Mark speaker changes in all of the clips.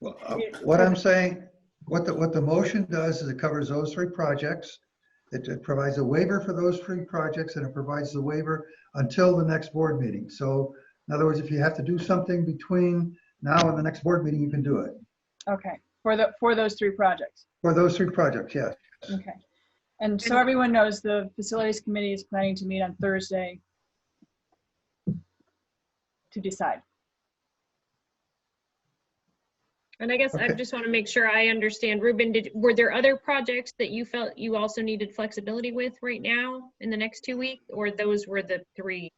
Speaker 1: Well, uh,
Speaker 2: Yeah.
Speaker 1: What I'm saying, what the, what the motion does is it covers those three projects. It it provides a waiver for those three projects and it provides the waiver until the next board meeting. So in other words, if you have to do something between now and the next board meeting, you can do it.
Speaker 2: Okay, for the, for those three projects.
Speaker 1: For those three projects, yes.
Speaker 2: Okay. And so everyone knows the facilities committee is planning to meet on Thursday to decide.
Speaker 3: And I guess I
Speaker 1: Okay.
Speaker 3: just want to make sure I understand. Ruben, did, were there other projects that you felt you also needed flexibility with right now in the next two weeks? Or those were the three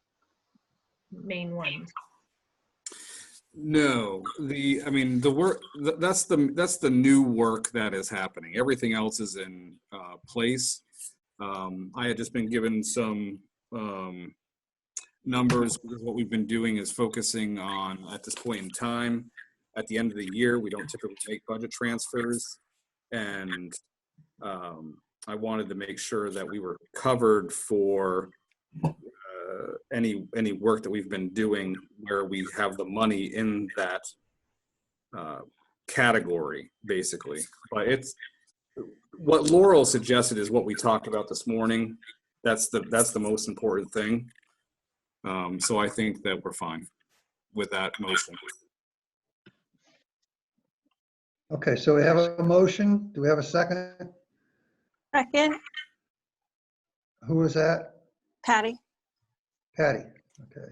Speaker 3: main ones?
Speaker 4: No, the, I mean, the work, th- that's the, that's the new work that is happening. Everything else is in uh, place. Um, I had just been given some um, numbers. because What we've been doing is focusing on, at this point in time, at the end of the year, we don't typically make budget transfers. And um, I wanted to make sure that we were covered for uh, any, any work that we've been doing where we have the money in that uh, category, basically. But it's, what Laurel suggested is what we talked about this morning. That's the, that's the most important thing. Um, So I think that we're fine with that motion.
Speaker 1: Okay, so we have a motion. Do we have a second?
Speaker 5: Second,
Speaker 1: Who was that?
Speaker 5: Patty.
Speaker 1: Patty. Okay.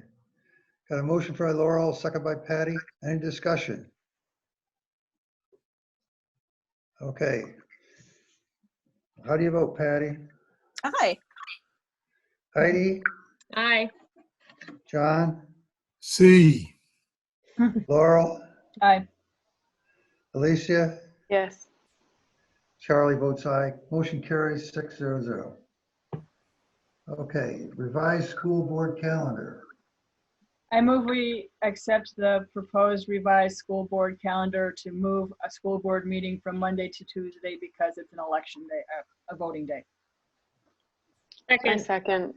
Speaker 1: Got a motion by Laurel, second by Patty. Any discussion? Okay. How do you vote, Patty?
Speaker 5: Aye.
Speaker 1: Heidi,
Speaker 3: Aye.
Speaker 1: John,
Speaker 6: C,
Speaker 1: Laurel,
Speaker 2: Aye.
Speaker 1: Alicia,
Speaker 2: Yes.
Speaker 1: Charlie votes aye. Motion carries six zero zero. Okay, revised school board calendar.
Speaker 2: I move we accept the proposed revised school board calendar to move a school board meeting from Monday to Tuesday because it's an election day, uh, a voting day.
Speaker 7: I
Speaker 3: Second.
Speaker 7: second.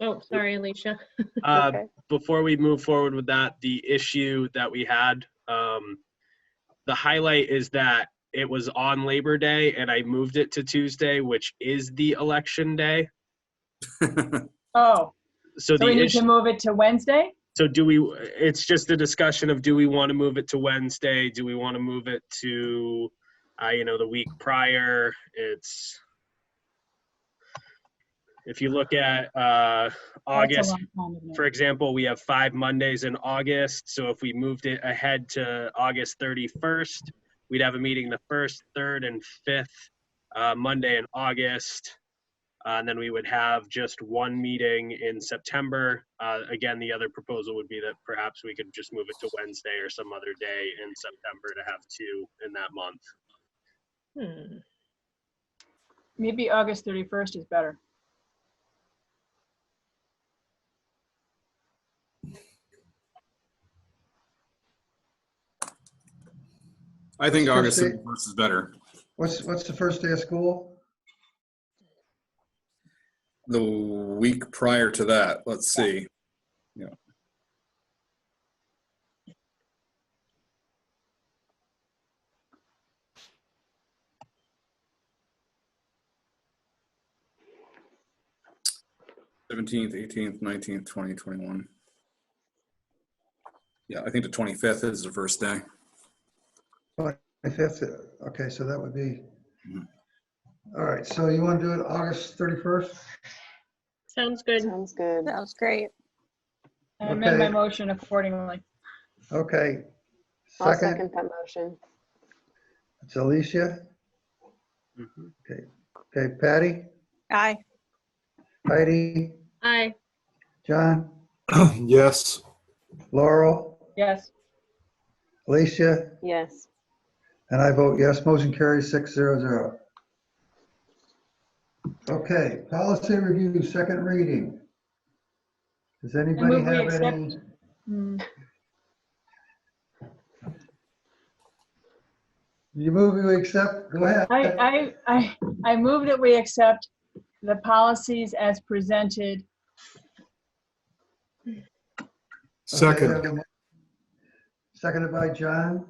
Speaker 3: Oh, sorry, Alicia.
Speaker 8: Uh,
Speaker 7: Okay.
Speaker 8: before we move forward with that, the issue that we had, um, the highlight is that it was on Labor Day and I moved it to Tuesday, which is the election day.
Speaker 2: Oh,
Speaker 8: So
Speaker 2: so
Speaker 8: the
Speaker 2: we need to
Speaker 8: issue,
Speaker 2: move it to Wednesday?
Speaker 8: so do we, it's just a discussion of do we want to move it to Wednesday? Do we want to move it to, uh, you know, the week prior? It's, if you look at, uh, August
Speaker 2: That's a long time, isn't it?
Speaker 8: for example, we have five Mondays in August, so if we moved it ahead to August 31st, we'd have a meeting the first, third, and fifth uh, Monday in August. Uh, and then we would have just one meeting in September. Uh, again, the other proposal would be that perhaps we could just move it to Wednesday or some other day in September to have two in that month.
Speaker 3: Hmm.
Speaker 2: Maybe August 31st is better.
Speaker 4: I think August
Speaker 1: Christie?
Speaker 4: 31st is better.
Speaker 1: What's, what's the first day of school?
Speaker 4: The week prior to that, let's see. Seventeenth, eighteenth, nineteenth, twenty, twenty-one. Yeah, I think the twenty-fifth is the first day.
Speaker 1: If that's, it, okay, so that would be, all right, so you want to do it August 31st?
Speaker 3: Sounds good.
Speaker 7: Sounds good.
Speaker 5: Sounds great.
Speaker 2: I amend my
Speaker 1: Okay.
Speaker 2: motion accordingly.
Speaker 1: Okay.
Speaker 7: I'll
Speaker 1: Second,
Speaker 7: second that motion.
Speaker 1: it's Alicia. Okay, Patty,
Speaker 5: Aye.
Speaker 1: Heidi,
Speaker 3: Aye.
Speaker 1: John,
Speaker 6: yes.
Speaker 1: Laurel,
Speaker 2: Yes.
Speaker 1: Alicia,
Speaker 7: Yes.
Speaker 1: and I vote yes. Motion carries six zero zero. Okay, policy review, second reading. Does anybody
Speaker 2: move we
Speaker 1: have any?
Speaker 2: accept- Hmm.
Speaker 1: You move, you accept, go ahead.
Speaker 2: I, I, I, I move that we accept the policies as presented.
Speaker 1: Okay, we
Speaker 6: Second.
Speaker 1: have a mo- Seconded by John.